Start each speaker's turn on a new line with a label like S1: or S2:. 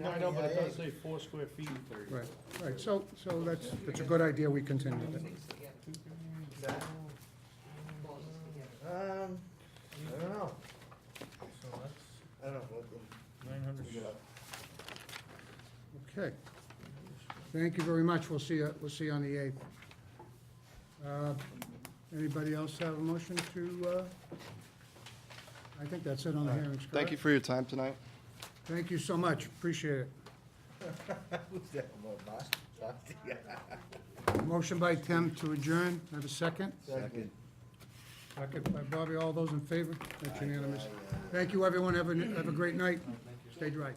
S1: No, I know, but it does say four square feet.
S2: Right, right, so, so that's, that's a good idea, we continue that.
S3: Um, I don't know,
S1: So that's
S3: I don't know, what
S1: nine hundred.
S2: Okay. Thank you very much, we'll see, you- we'll see you on the eighth. Uh, Anybody else have a motion to, uh, I think that's it on the hearings, correct?
S4: Thank you for your time tonight.
S2: Thank you so much, appreciate it.
S3: the- who's that, my boss?
S2: Motion by Tim to adjourn, have a second?
S3: Second.
S2: Second by Bobby, all those in favor? That's unanimous. Thank you, everyone, have a, have a great night, stay dry.